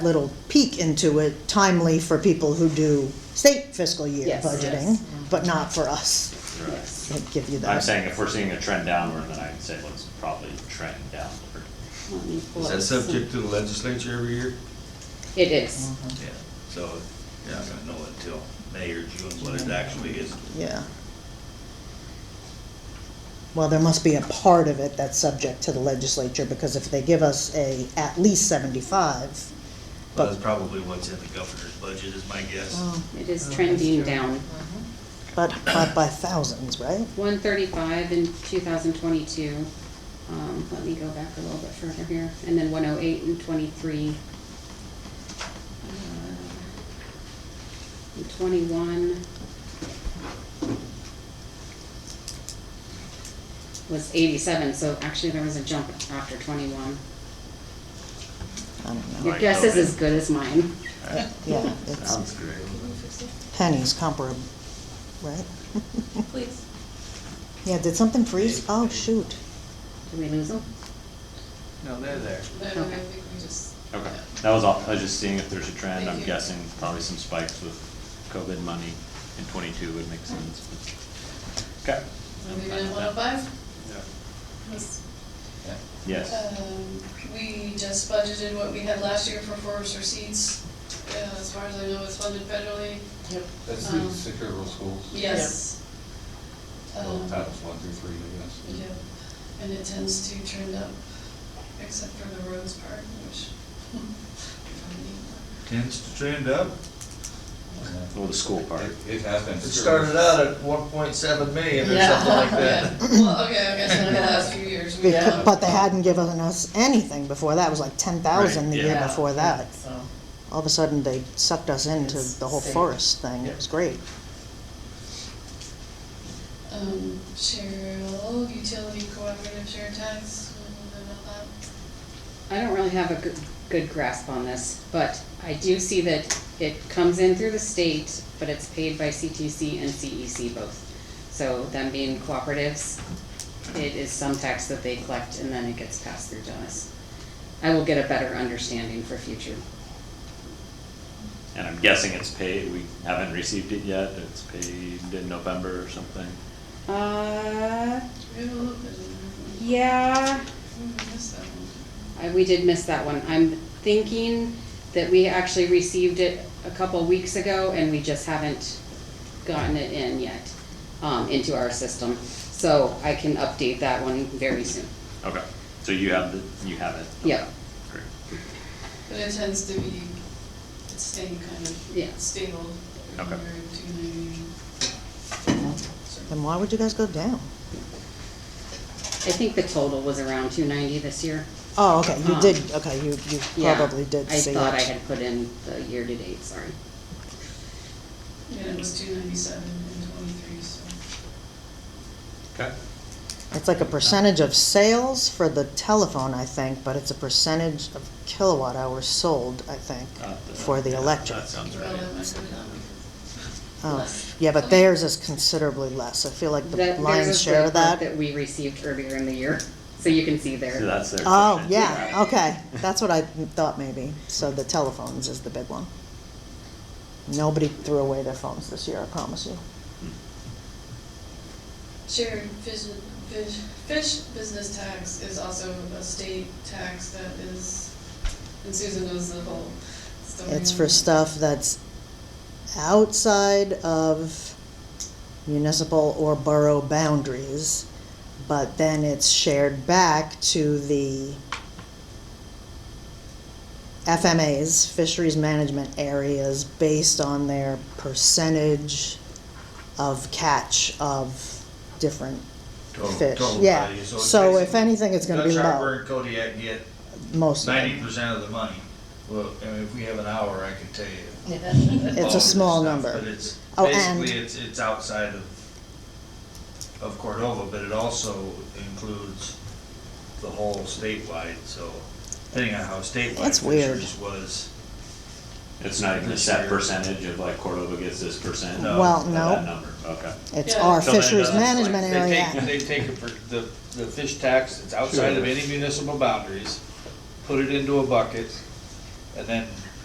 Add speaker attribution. Speaker 1: little peek into it timely for people who do state fiscal year
Speaker 2: Yes.
Speaker 1: budgeting,
Speaker 2: Yes. Mm-hmm.
Speaker 1: but not for us.
Speaker 3: Right.
Speaker 1: I'd give you
Speaker 3: I'm
Speaker 1: that.
Speaker 3: saying if we're seeing a trend downward, then I'd say let's probably trend downward.
Speaker 2: Let me pull
Speaker 4: Is
Speaker 2: up
Speaker 4: that
Speaker 2: some-
Speaker 4: subject to the legislature every year?
Speaker 2: It is.
Speaker 1: Mm-hmm.
Speaker 4: Yeah. So, yeah, I'm gonna know until May or June what it actually is.
Speaker 1: Yeah. Well, there must be a part of it that's subject to the legislature, because if they give us a at least seventy-five,
Speaker 4: Well, that's probably what's in the governor's budget is my guess.
Speaker 1: Oh. Mm.
Speaker 2: It is trending down.
Speaker 1: but, but by thousands, right?
Speaker 2: One thirty-five in two thousand twenty-two. Um, let me go back a little bit further here, and then one oh eight and twenty-three. Uh, And twenty-one was eighty-seven, so actually there was a jump after twenty-one.
Speaker 1: Oh, I don't know,
Speaker 2: Your
Speaker 4: Right,
Speaker 2: guess is
Speaker 4: okay.
Speaker 2: as good as mine.
Speaker 1: yeah, it's
Speaker 3: Um,
Speaker 4: great.
Speaker 1: pennies comparable, right?
Speaker 5: Please.
Speaker 1: Yeah, did something freeze? Oh, shoot.
Speaker 2: Did we lose them?
Speaker 6: No, they're there.
Speaker 5: No, no, no, I think we just,
Speaker 3: Okay, that was all, I was just seeing if there's a trend, I'm
Speaker 5: Thank you.
Speaker 3: guessing probably some spikes with COVID money in twenty-two would make sense. but- Okay. I'm
Speaker 5: maybe
Speaker 3: fine
Speaker 5: in
Speaker 3: with
Speaker 5: one oh
Speaker 3: that.
Speaker 5: five?
Speaker 3: Yes,
Speaker 5: Um, We just budgeted what we had last year for forest receipts. Uh, As far as I know, it's funded federally.
Speaker 7: That's
Speaker 5: Um,
Speaker 7: the secure schools.
Speaker 5: Yes.
Speaker 7: Well,
Speaker 5: Um,
Speaker 7: Titles one through three, I guess.
Speaker 5: Yeah, and it tends to trend up, except for the roads part, which. we don't need.
Speaker 4: Tends to trend up.
Speaker 7: Yeah.
Speaker 3: well, the school part.
Speaker 7: It, it has been.
Speaker 6: It started out at one point seven million or
Speaker 5: Yeah,
Speaker 6: something like that.
Speaker 5: yeah. Well, okay, I guess in the last few years, we
Speaker 1: Becau-
Speaker 5: have.
Speaker 1: But they hadn't given us anything before that, it was like ten thousand the
Speaker 3: Right,
Speaker 1: year
Speaker 3: yeah.
Speaker 1: before that.
Speaker 8: So,
Speaker 1: All of a sudden, they sucked us into
Speaker 8: It's
Speaker 1: the whole
Speaker 8: safe.
Speaker 1: forest thing, it was great.
Speaker 5: Um, Cheryl, utility cooperative share tax, we don't know about that.
Speaker 2: I don't really have a good, good grasp on this, but I do see that it comes in through the state, but it's paid by CTC and CEC both. So them being cooperatives, it is some tax that they collect and then it gets passed through to us. I will get a better understanding for future.
Speaker 3: And I'm guessing it's paid, we haven't received it yet, it's paid in November or something.
Speaker 2: Uh,
Speaker 5: We have a little bit of that.
Speaker 2: yeah,
Speaker 5: We missed that one.
Speaker 2: I, we did miss that one. I'm thinking that we actually received it a couple weeks ago and we just haven't gotten it in yet, um, into our system. So I can update that one very soon.
Speaker 3: Okay, so you have the, you have it?
Speaker 2: Yeah.
Speaker 3: Great.
Speaker 5: But it tends to be, it's staying kind of
Speaker 2: Yeah.
Speaker 5: stable.
Speaker 3: Okay.
Speaker 5: Two ninety.
Speaker 1: Then why would you guys go down?
Speaker 2: I think the total was around two ninety this year.
Speaker 1: Oh, okay, you
Speaker 2: Um,
Speaker 1: did, okay, you, you
Speaker 2: Yeah,
Speaker 1: probably did see
Speaker 2: I thought I
Speaker 1: it.
Speaker 2: had put in the year-to-date, sorry.
Speaker 5: Yeah, it was two ninety-seven and twenty-three, so.
Speaker 3: Okay,
Speaker 1: It's like a percentage of sales for the telephone, I think, but it's a percentage of kilowatt hours sold, I think,
Speaker 3: Uh, the-
Speaker 1: for the
Speaker 3: yeah,
Speaker 1: electric.
Speaker 3: that sounds
Speaker 5: Well,
Speaker 3: right.
Speaker 5: that might go down.
Speaker 1: Oh,
Speaker 2: less.
Speaker 1: Yeah, but theirs is considerably less, I feel like the
Speaker 2: That- there's
Speaker 1: lion's
Speaker 2: a
Speaker 1: share of
Speaker 2: breakdown
Speaker 1: that.
Speaker 2: That we received earlier in the year, so you can see there.
Speaker 3: So that's their.
Speaker 1: Oh,
Speaker 3: question.
Speaker 1: yeah, okay, that's what I thought maybe, so the telephones is the big one. Nobody threw away their phones this year, I promise you.
Speaker 5: Shared fish, fish, fish business tax is also a state tax that is, and Susan knows the whole story.
Speaker 1: It's
Speaker 5: on
Speaker 1: for
Speaker 5: it.
Speaker 1: stuff that's outside of municipal or borough boundaries, but then it's shared back to the FMAs, fisheries management areas, based on their percentage of catch of different
Speaker 4: Total-
Speaker 1: fish.
Speaker 4: total
Speaker 1: Yeah,
Speaker 4: value. So it's
Speaker 1: so if
Speaker 4: basically-
Speaker 1: anything, it's gonna be
Speaker 4: Dutch Harbor
Speaker 1: low,
Speaker 4: and Kodiak get
Speaker 1: most of
Speaker 4: ninety
Speaker 1: it.
Speaker 4: percent of the money. Well, I mean, if we have an hour, I can tell you. all
Speaker 1: It's
Speaker 4: of
Speaker 1: a
Speaker 4: the
Speaker 1: small
Speaker 4: stuff,
Speaker 1: number.
Speaker 4: But it's,
Speaker 1: Oh, and-
Speaker 4: basically, it's, it's outside of, of Cordova, but it also includes the whole statewide, so depending on how statewide
Speaker 1: That's weird.
Speaker 4: Fishers was.
Speaker 3: It's not even a set percentage of like Cordova gets this percent?
Speaker 4: No.
Speaker 1: Well,
Speaker 3: of
Speaker 1: no.
Speaker 3: That number, okay.
Speaker 1: It's
Speaker 5: Yeah.
Speaker 1: our
Speaker 3: So then it
Speaker 1: fisheries
Speaker 3: doesn't-
Speaker 1: management
Speaker 6: uh, They
Speaker 1: area.
Speaker 6: take, they take a per- the, the fish tax, it's outside of any municipal boundaries, put it into a bucket, and then